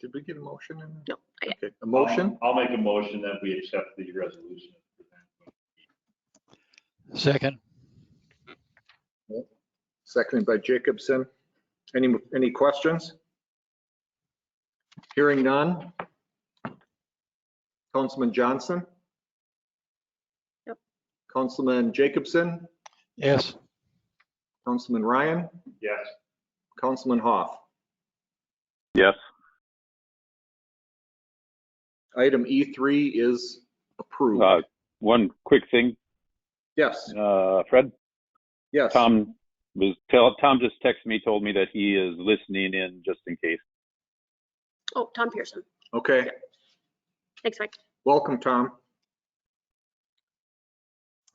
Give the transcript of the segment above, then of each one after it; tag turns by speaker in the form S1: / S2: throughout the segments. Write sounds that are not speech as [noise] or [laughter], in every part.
S1: Did we get a motion in?
S2: No, not yet.
S1: Okay, a
S3: Um,
S1: motion?
S4: I'll make a motion that we accept the resolution.
S5: Second,
S1: Seconded by Jacobson. Any, any questions? Hearing none. Councilman Johnson?
S2: Yep.
S1: Councilman Jacobson,
S5: yes,
S1: Councilman Ryan,
S4: Yes,
S1: Councilman Hoff.
S3: Yes.
S1: Item E3 is
S3: Uh,
S1: approved.
S3: One quick thing,
S1: Yes,
S3: uh, Fred,
S1: yes.
S3: Tom was, tell, Tom just texted me, told me that he is listening in just in case.
S2: Oh, Tom Pearson.
S1: Okay,
S2: Thanks, Mike.
S1: welcome, Tom.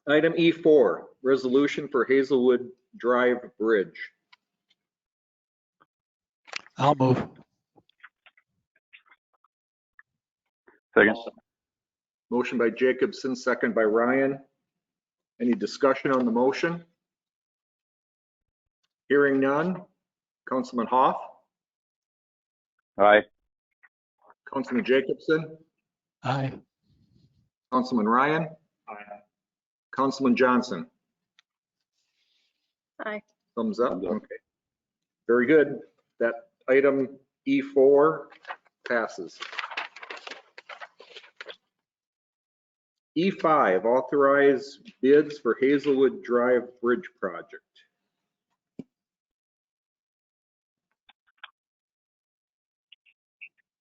S1: Item E4, resolution for Hazelwood Drive Bridge.
S5: I'll move.
S3: Second,
S1: Motion by Jacobson, second by Ryan. Any discussion on the motion? Hearing none. Councilman Hoff,
S3: aye,
S1: Councilman Jacobson,
S5: Aye,
S1: Councilman Ryan,
S4: I,
S1: Councilman Johnson.
S2: Aye.
S1: Thumbs up,
S3: Thumbs up.
S1: okay. Very good. That item E4 passes. E5, E authorize bids for Hazelwood Drive Bridge Project.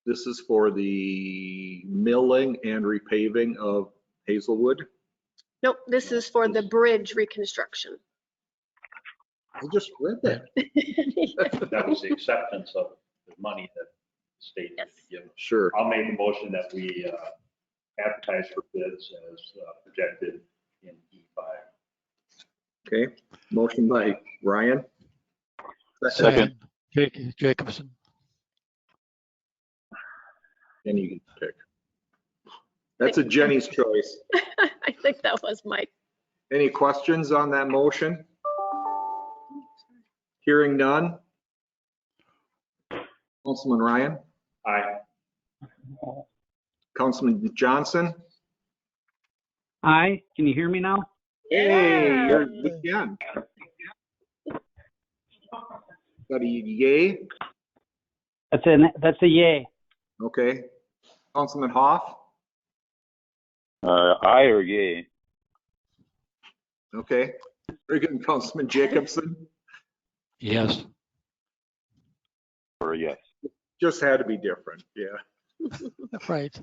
S1: This is for the milling and repaving of Hazelwood.
S2: Nope, this is for the bridge reconstruction. [laughs]
S1: I just read that.
S2: Yes.
S4: that was the acceptance of the money that the state had given.
S1: Sure.
S4: I'll make a motion that we uh, advertise for bids as uh, projected in E E5.
S1: Okay, motion by Ryan.
S5: second, Ja- Jacobson,
S1: And you can pick. That's a Jenny's choice.
S2: I think that was Mike.
S1: Any questions on that motion? Hearing none. Councilman Ryan,
S4: I,
S1: Councilman Johnson.
S6: Hi, can you hear me now?
S1: Hey, you're again. Got a yay?
S6: That's a that's a yay.
S1: Okay. Councilman Hoff?
S3: uh, aye or yay?
S1: Okay. Very good. Councilman Jacobson?
S5: yes,
S3: Or a yes?
S1: Just had to be different, yeah.
S5: right,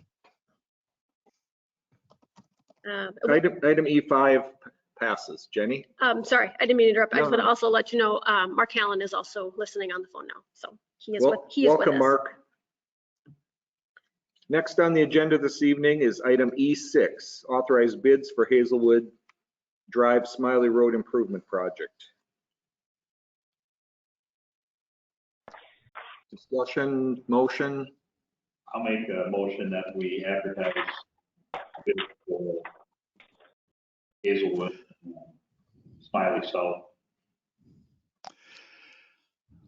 S2: Um,
S1: Item, item E5 passes. Jenny?
S2: Um, sorry, I didn't mean to interrupt. I
S1: No,
S2: just want to
S1: no.
S2: also let you know, um, Mark Allen is also listening on the phone now, so he is with,
S1: Wel-
S2: he is with us.
S1: Welcome, Mark. Next on the agenda this evening is item E6, authorized bids for Hazelwood Drive Smiley Road Improvement Project. Discussion, motion,
S4: I'll make a motion that we advertise bids for Hazelwood, Smiley South.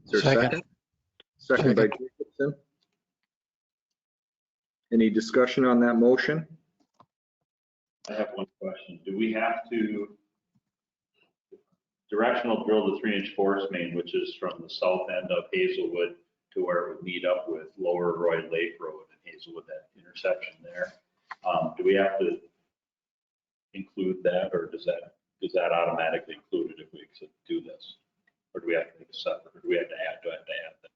S1: is there a
S5: Second.
S1: second? Second by Jacobson. Any discussion on that motion?
S4: I have one question. Do we have to directional drill the three-inch forest main, which is from the south end of Hazelwood to where it would meet up with Lower Roy Lake Road and Hazelwood, that intersection there? Um, Do we have to include that, or does that, is that automatically included if we do this? Or do we have to make a separate, or do we have to add, do I have to add that?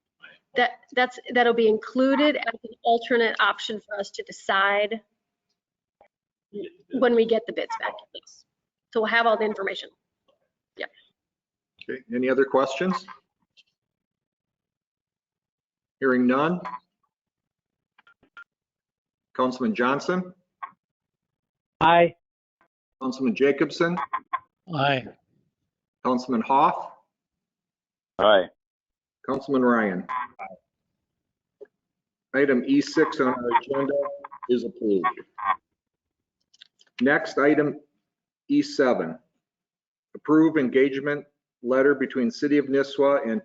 S2: That, that's, that'll be included as an alternate option for us to decide when we get the bids back. Yes. So we'll have all the information.
S1: Okay, any other questions? Hearing none. Councilman Johnson,
S6: Hi,
S1: Councilman Jacobson,
S5: aye,
S1: Councilman Hoff,
S3: Aye,
S1: Councilman Ryan. Item E6 on our agenda is approved. Next, item E E7. Approve engagement letter between City of Nisswa and